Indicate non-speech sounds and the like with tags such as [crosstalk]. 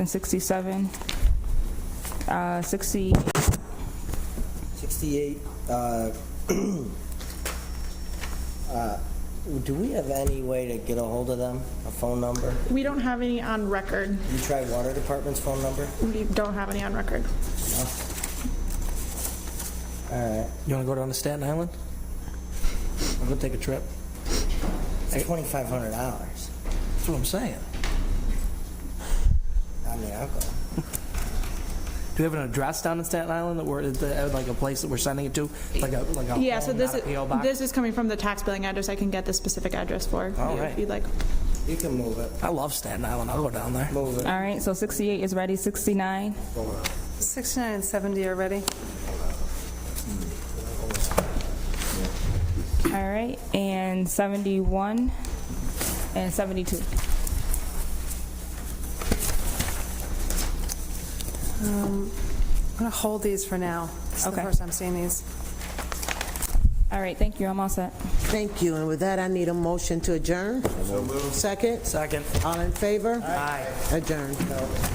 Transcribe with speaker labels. Speaker 1: and 67, uh, 60,
Speaker 2: 68, uh, uh, [clears throat] do we have any way to get a hold of them, a phone number?
Speaker 3: We don't have any on record.
Speaker 2: You try water department's phone number?
Speaker 3: We don't have any on record.
Speaker 2: All right,
Speaker 4: You want to go down to Staten Island? I'm going to take a trip.
Speaker 2: it's $2,500.
Speaker 4: That's what I'm saying.
Speaker 2: I mean, I'll go.
Speaker 4: Do we have an address down in Staten Island that we're, that- uh, like a place that we're sending it to? Like a, like a
Speaker 3: Yeah, so
Speaker 4: home,
Speaker 3: this
Speaker 4: not
Speaker 3: is,
Speaker 4: a PO box?
Speaker 3: this is coming from the tax billing address. I can get the specific address for you
Speaker 4: All
Speaker 3: if
Speaker 4: right.
Speaker 3: you'd like.
Speaker 2: You can move it,
Speaker 4: I love Staten Island. I'll go down there.
Speaker 2: move it.
Speaker 1: all right, so 68 is ready, 69,
Speaker 5: 69 and 70 are ready.
Speaker 1: all right, and 71 and 72.
Speaker 5: I'm going to hold these for now. This is the
Speaker 1: Okay.
Speaker 5: first I'm seeing these.
Speaker 1: All right, thank you, I'm all set.
Speaker 6: Thank you, and with that, I need a motion to adjourn. So moved. Second?
Speaker 4: Second.
Speaker 6: All in favor?
Speaker 4: Aye.
Speaker 6: Adjourn.